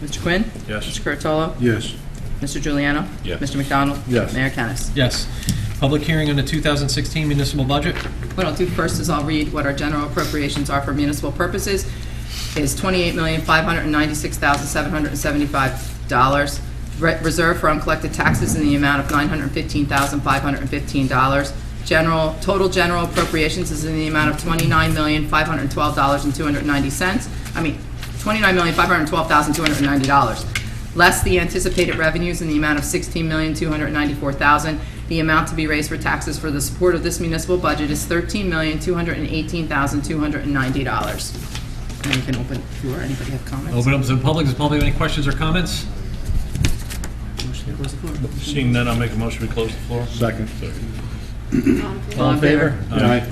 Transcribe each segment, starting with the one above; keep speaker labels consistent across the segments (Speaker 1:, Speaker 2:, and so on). Speaker 1: Mr. Quinn?
Speaker 2: Yes.
Speaker 1: Mr. Curatolo?
Speaker 2: Yes.
Speaker 1: Mr. Juliano?
Speaker 2: Yes.
Speaker 1: Mr. McDonald?
Speaker 2: Yes.
Speaker 1: Mayor Kennas.
Speaker 3: Yes. Public hearing on the 2016 municipal budget.
Speaker 1: What I'll do oh first is I'll read what our general appropriations are for municipal purposes. Is $28,596,775. Re- Reserve for uncollected taxes in the amount of $915,515. General, total general appropriations is in the amount of $29,512,290. I mean, $29,512,290. less the anticipated revenues in the amount of $16,294,000. The amount to be raised for taxes for the support of this municipal budget is $13,218,290. And we can open, if you or anybody have comments.
Speaker 3: Open up to the public. Does the public have any questions or comments?
Speaker 1: Motion to close the floor.
Speaker 2: Seeing none, I'll make a motion to close the floor.
Speaker 4: Second.
Speaker 3: All in favor?
Speaker 4: Aye.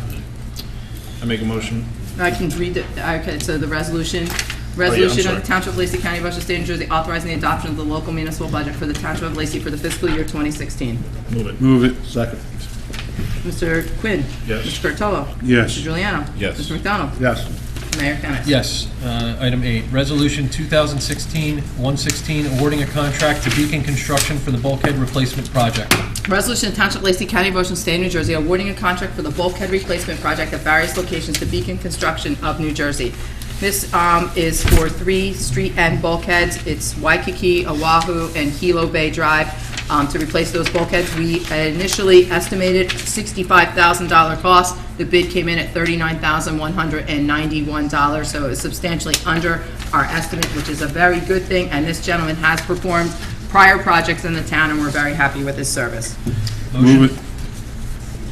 Speaker 2: I make a motion.
Speaker 1: I can read it, okay, so the resolution, resolution of
Speaker 2: sorry.
Speaker 1: the Township of Lacey County, Washington State, New Jersey, authorizing the adoption of the local municipal budget for the Township of Lacey for the fiscal year 2016.
Speaker 2: Move it.
Speaker 4: Move it. Second.
Speaker 1: Mr. Quinn?
Speaker 2: Yes.
Speaker 1: Mr. Curatolo?
Speaker 4: Yes.
Speaker 1: Mr. Juliano?
Speaker 2: Yes.
Speaker 1: Mr. McDonald?
Speaker 4: Yes.
Speaker 1: Mayor Kennas.
Speaker 3: Yes. Uh, Item eight, Resolution 2016-116, awarding a contract to Beacon Construction for the bulkhead replacement project.
Speaker 1: Resolution of Township of Lacey County, Motion State, New Jersey, awarding a contract for the bulkhead replacement project at various locations to Beacon Construction of New Jersey. This um, is for three street end bulkheads. It's Waikiki, Oahu, and Hilo Bay Drive um, to replace those bulkheads. We initially estimated $65,000 cost. The bid came in at $39,191, so it's substantially under our estimate, which is a very good thing, and this gentleman has performed prior projects in the town, and we're very happy with his service.
Speaker 4: Move it.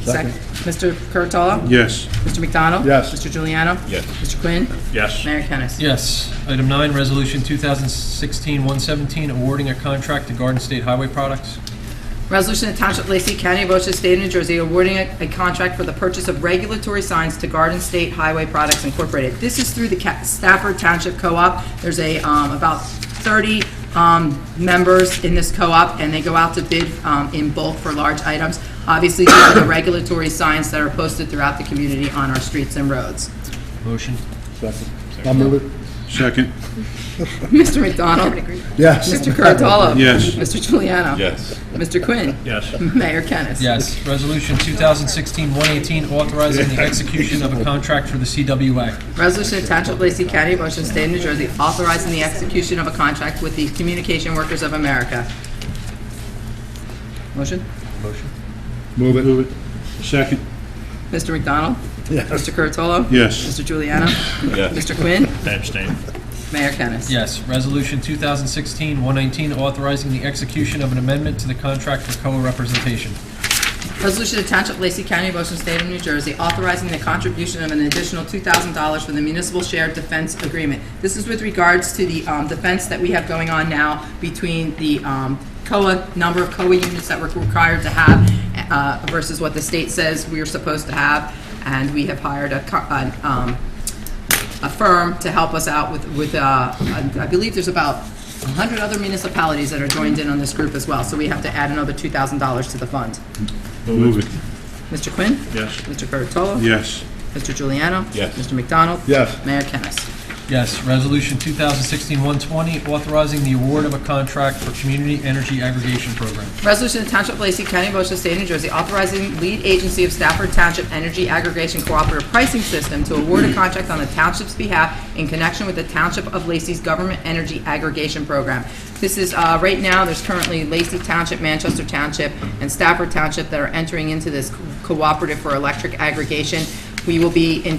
Speaker 1: Second. Mr. Curatolo?
Speaker 4: Yes.
Speaker 1: Mr. McDonald?
Speaker 4: Yes.
Speaker 1: Mr. Juliano?
Speaker 2: Yes.
Speaker 1: Mr. Quinn?
Speaker 2: Yes.
Speaker 1: Mayor Kennas.
Speaker 3: Yes. Item nine, Resolution 2016-117, awarding a contract to Garden State Highway Products.
Speaker 1: Resolution of Township of Lacey County, Ocean State, New Jersey, awarding a a contract for the purchase of regulatory signs to Garden State Highway Products Incorporated. This is through the Ca- Stafford Township Co-op. There's a, um, about 30 um, members in this co-op, and they go out to bid um, in bulk for large items. Obviously, these are the regulatory signs that are posted throughout the community on our streets and roads.
Speaker 3: Motion.
Speaker 4: Second. I'll move it. Second.
Speaker 1: Mr. McDonald?
Speaker 4: Yes.
Speaker 1: Mr. Curatolo?
Speaker 4: Yes.
Speaker 1: Mr. Juliano?
Speaker 2: Yes.
Speaker 1: Mr. Quinn?
Speaker 2: Yes.
Speaker 1: Mayor Kennas.
Speaker 3: Yes. Resolution 2016-118, authorizing the execution of a contract for the CWA.
Speaker 1: Resolution of Township of Lacey County, Motion State of New Jersey, authorizing the execution of a contract with the Communication Workers of America. Motion?
Speaker 4: Move it. Move it. Second.
Speaker 1: Mr. McDonald? Mr. Curatolo?
Speaker 4: Yes.
Speaker 1: Mr. Juliano?
Speaker 2: Yes.
Speaker 1: Mr. Quinn?
Speaker 2: I abstain.
Speaker 1: Mayor Kennas.
Speaker 3: Yes. Resolution 2016-119, authorizing the execution of an amendment to the contract for co-representation.
Speaker 1: Resolution of Township of Lacey County, Motion State of New Jersey, authorizing the contribution of an additional $2,000 for the municipal shared defense agreement. This is with regards to the um, defense that we have going on now between the um, COA, number of COA units that we're required to have uh, versus what the state says we are supposed to have, and we have hired a co- an, um, a firm to help us out with, with, uh, I believe there's about 100 other municipalities that are joined in on this group as well, so we have to add another $2,000 to the fund.
Speaker 4: Move it.
Speaker 1: Mr. Quinn?
Speaker 2: Yes.
Speaker 1: Mr. Curatolo?
Speaker 4: Yes.
Speaker 1: Mr. Juliano?
Speaker 2: Yes.
Speaker 1: Mr. McDonald?
Speaker 4: Yes.
Speaker 1: Mayor Kennas.
Speaker 3: Yes. Resolution 2016-120, authorizing the award of a contract for community energy aggregation program.
Speaker 1: Resolution of Township of Lacey County, Ocean State, New Jersey, authorizing lead agency of Stafford Township Energy Aggregation Cooperative Pricing System to award a contract on the township's behalf in connection with the Township of Lacey's Government Energy Aggregation Program. This is, uh, right now, there's currently Lacey Township, Manchester Township, and Stafford Township that are entering into this co- cooperative for electric aggregation. We will be in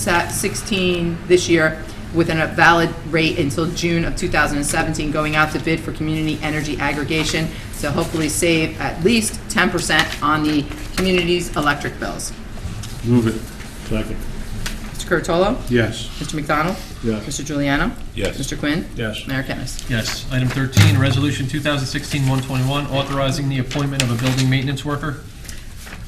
Speaker 1: 2016, this year, with a valid rate until June of 2017, going out to bid for community energy aggregation, so hopefully save at least 10% on the community's electric bills.
Speaker 4: Move it. Second.
Speaker 1: Mr. Curatolo?
Speaker 4: Yes.
Speaker 1: Mr. McDonald?
Speaker 4: Yes.
Speaker 1: Mr. Juliano?
Speaker 2: Yes.
Speaker 1: Mr. Quinn?
Speaker 2: Yes.
Speaker 1: Mayor Kennas.
Speaker 3: Yes. Item 13, Resolution 2016-121, authorizing the appointment of a building maintenance worker.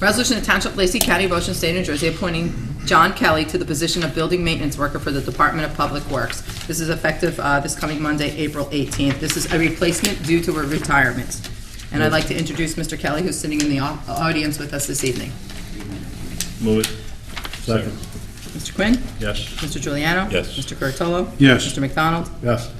Speaker 1: Resolution of Township of Lacey County, Ocean State, New Jersey, appointing John Kelly to the position of Building Maintenance Worker for the Department of Public Works. This is effective uh, this coming Monday, April 18th. This is a replacement due to a retirement. And I'd like to introduce Mr. Kelly, who's sitting in the au- audience with us this evening.
Speaker 2: Move it. Second.
Speaker 1: Mr. Quinn?
Speaker 2: Yes.
Speaker 1: Mr. Juliano?
Speaker 2: Yes.
Speaker 1: Mr. Curatolo?
Speaker 4: Yes.
Speaker 1: Mr. McDonald?
Speaker 4: Yes.